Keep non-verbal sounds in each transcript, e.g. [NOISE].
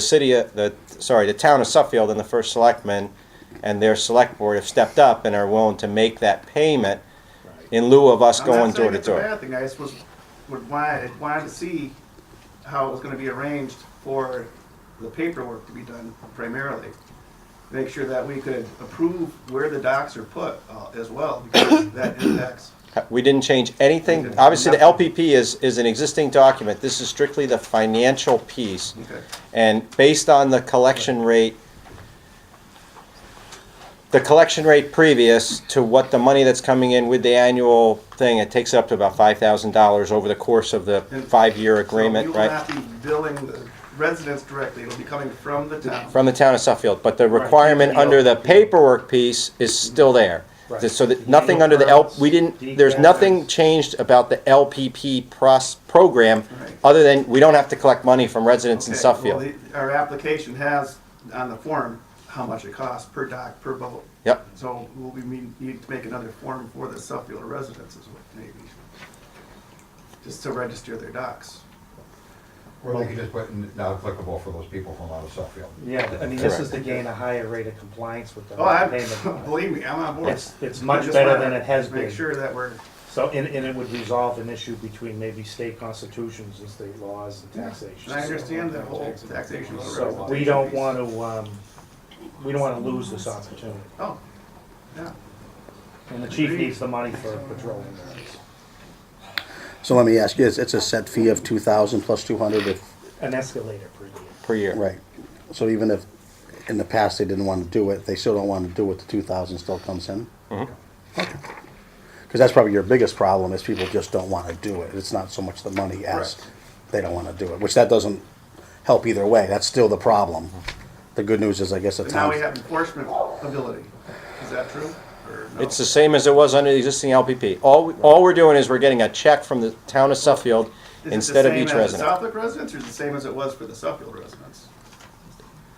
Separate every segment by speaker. Speaker 1: the city, uh, the, sorry, the town of Suffield and the first selectmen and their select board have stepped up and are willing to make that payment in lieu of us
Speaker 2: I'm
Speaker 1: going
Speaker 2: not
Speaker 1: door
Speaker 2: saying
Speaker 1: to
Speaker 2: it's a
Speaker 1: door.
Speaker 2: bad thing, I just was, would want, wanted to see how it was gonna be arranged for the paperwork to be done primarily. Make sure that we could approve where the docks are put uh, as well,
Speaker 1: [COUGHS]
Speaker 2: because that impacts.
Speaker 1: We didn't change anything.
Speaker 2: Okay.
Speaker 1: Obviously, the LPP is, is an existing document. This is strictly the financial piece.
Speaker 2: Okay.
Speaker 1: And based on the collection rate, the collection rate previous to what the money that's coming in with the annual thing, it takes up to about five thousand dollars over the course of the five-year agreement, right?
Speaker 2: So you will not be billing the residents directly, it'll be coming from the town.
Speaker 1: From the town of Suffield, but the requirement under the paperwork piece is still there.
Speaker 3: Right.
Speaker 1: So that, nothing under the L, we didn't, there's nothing changed about the LPP pros, program,
Speaker 2: Right.
Speaker 1: other than we don't have to collect money from residents in
Speaker 2: Okay,
Speaker 1: Suffield.
Speaker 2: well, the- Our application has on the form how much it costs per dock, per boat.
Speaker 1: Yep,
Speaker 2: So will we need, need to make another form for the Suffield residents as well, maybe? Just to register their docks.
Speaker 4: Or they could just put n- not applicable for those people from out of Suffield.
Speaker 3: Yeah, I mean, this is to gain a higher rate of compliance with the
Speaker 2: Oh, I, [LAUGHS]
Speaker 3: payment.
Speaker 2: believe me, I'm on board.
Speaker 3: It's- it's
Speaker 2: I
Speaker 3: much
Speaker 2: just
Speaker 3: better
Speaker 2: wanna
Speaker 3: than it has been.
Speaker 2: Make sure that we're,
Speaker 3: So, and, and it would resolve an issue between maybe state constitutions and state laws and taxation.
Speaker 2: and I understand the whole taxation. of the
Speaker 3: So
Speaker 2: residents
Speaker 3: we don't
Speaker 2: piece.
Speaker 3: want to, um, we don't want to lose this opportunity.
Speaker 2: Oh, yeah,
Speaker 3: And the chief needs the money for patrolling areas.
Speaker 5: So let me ask you, it's it's a set fee of two thousand plus two hundred if,
Speaker 3: An escalator per year.
Speaker 1: per year.
Speaker 5: right. So even if in the past they didn't want to do it, they still don't want to do it, the two thousand still comes in?
Speaker 1: Mm-hmm.
Speaker 5: Because that's probably your biggest problem is people just don't want to do it. It's not so much the money as
Speaker 2: Correct.
Speaker 5: they don't want to do it, which that doesn't help either way. That's still the problem.
Speaker 1: Mm-hmm.
Speaker 5: The good news is I guess the
Speaker 2: but now
Speaker 5: town,
Speaker 2: we have enforcement ability. Is that true or no?
Speaker 1: It's the same as it was under the existing LPP. All, all we're doing is we're getting a check from the town of Suffield
Speaker 2: Is it the
Speaker 1: instead of
Speaker 2: same
Speaker 1: each
Speaker 2: as
Speaker 1: resident.
Speaker 2: the Southwick residents or is it the same as it was for the Suffield residents?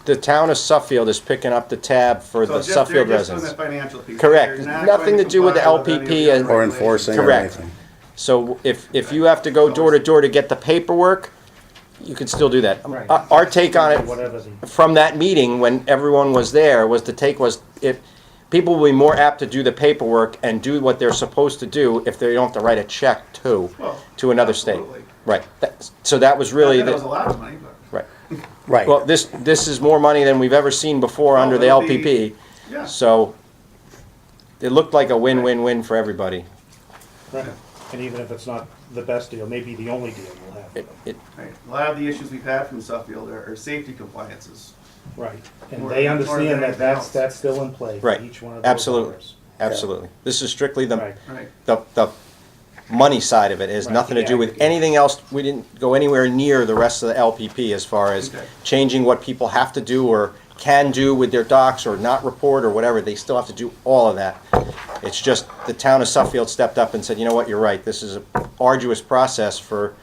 Speaker 1: The town of Suffield is picking up the tab for
Speaker 2: So
Speaker 1: the
Speaker 2: just-
Speaker 1: Suffield
Speaker 2: they're just doing
Speaker 1: residents.
Speaker 2: the financial piece.
Speaker 1: Correct.
Speaker 2: They're not
Speaker 1: Nothing
Speaker 2: going
Speaker 1: to do with the
Speaker 2: comply with any of
Speaker 1: LPP
Speaker 2: the
Speaker 1: and-
Speaker 2: other
Speaker 5: or
Speaker 2: regulations.
Speaker 5: enforcing or
Speaker 1: Correct.
Speaker 5: anything.
Speaker 1: So if, if you have to go door to door to get the paperwork, you can still do that.
Speaker 3: Right.
Speaker 1: Our our take on it
Speaker 3: Whatever the,
Speaker 1: from that meeting, when everyone was there, was the take was if, people will be more apt to do the paperwork and do what they're supposed to do if they don't have to write a check to,
Speaker 2: Well,
Speaker 1: to another state.
Speaker 2: absolutely.
Speaker 1: Right. That's- So that was really,
Speaker 2: Not that it was a
Speaker 1: the-
Speaker 2: lot of money, but.
Speaker 1: right.
Speaker 5: Right.
Speaker 1: Well, this, this is more money than we've ever seen before
Speaker 2: Well,
Speaker 1: under the
Speaker 2: it'll be-
Speaker 1: LPP.
Speaker 2: Yeah.
Speaker 1: So it looked like a win-win-win for everybody.
Speaker 3: right. and even if it's not the best deal, maybe the only deal we'll have.
Speaker 1: It, it,
Speaker 2: Right. A lot of the issues we've had from Suffield are, are safety compliances.
Speaker 3: Right, and
Speaker 2: More-
Speaker 3: they
Speaker 2: more than
Speaker 3: understand that
Speaker 2: anything
Speaker 3: that's,
Speaker 2: else.
Speaker 3: that's still in play for
Speaker 1: Right.
Speaker 3: each one of those.
Speaker 1: Absolutely.
Speaker 3: owners.
Speaker 1: Absolutely. This is strictly the,
Speaker 3: Right.
Speaker 2: Right.
Speaker 1: the, the money side of it. It has
Speaker 3: Right.
Speaker 1: nothing to do
Speaker 3: Yeah.
Speaker 1: with anything else. We didn't go anywhere near the rest of the LPP as far as
Speaker 2: Okay.
Speaker 1: changing what people have to do or can do with their docs or not report or whatever. They still have to do all of that. It's just the town of Suffield stepped up and said, you know what, you're right. This is an arduous process for,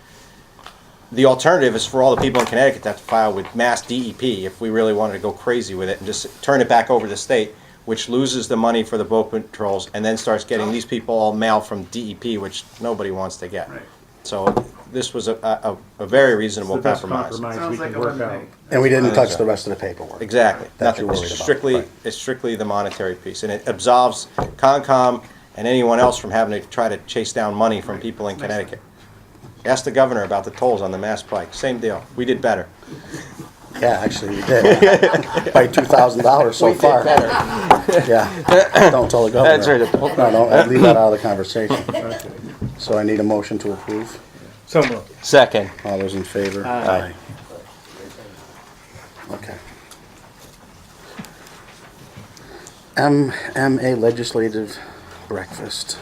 Speaker 1: the alternative is for all the people in Connecticut to have to file with mass DEP if we really wanted to go crazy with it and just turn it back over to the state, which loses the money for the boat patrols and then starts getting these people all mail from DEP, which nobody wants to get.
Speaker 2: Right.
Speaker 1: So this was a, a, a very
Speaker 3: It's the
Speaker 1: reasonable
Speaker 3: best
Speaker 1: compromise.
Speaker 3: compromise we
Speaker 2: Sounds like
Speaker 3: can
Speaker 2: a
Speaker 3: work
Speaker 2: win to
Speaker 3: out.
Speaker 2: me.
Speaker 5: And we didn't touch
Speaker 1: so.
Speaker 5: the rest of the paperwork.
Speaker 1: Exactly,
Speaker 5: That
Speaker 1: nothing,
Speaker 5: you're worried
Speaker 1: it's
Speaker 5: about,
Speaker 1: strictly,
Speaker 5: right.
Speaker 1: it's strictly the monetary piece, and it absolves Concom and anyone else from having to try to chase down money from people in Connecticut. Ask the governor about the tolls on the Mass Pike, same deal, we did better.
Speaker 5: Yeah, actually, we did. [LAUGHS] By two thousand dollars so far. Yeah, don't tell the governor.
Speaker 1: That's right.
Speaker 5: No, no, I'd leave that out of the conversation. So I need a motion to approve.
Speaker 3: So moved.
Speaker 1: Second.
Speaker 5: All those in favor?
Speaker 3: Aye.
Speaker 5: Aye. Okay. MMA legislative breakfast.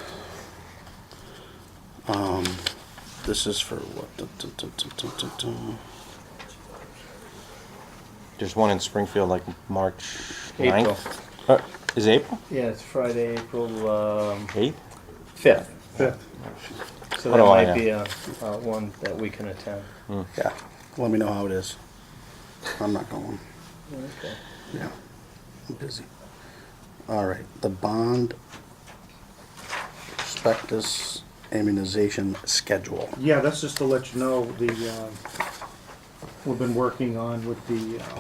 Speaker 5: Um, this is for what? Dun, dun, dun, dun, dun, dun, dun.
Speaker 1: There's one in Springfield like March 9th. Uh, Is it April?
Speaker 6: Yeah, it's Friday, April um,
Speaker 1: 8th?
Speaker 6: 5th. So that
Speaker 1: What do I
Speaker 6: might
Speaker 1: know?
Speaker 6: be a, uh one that we can attend.
Speaker 5: Yeah, let me know how it is. I'm not going.
Speaker 6: Okay.
Speaker 5: Yeah, I'm busy. All right, the bond prospectus immunization schedule.
Speaker 3: Yeah, that's just to let you know, the, um, we've been working on with the uh,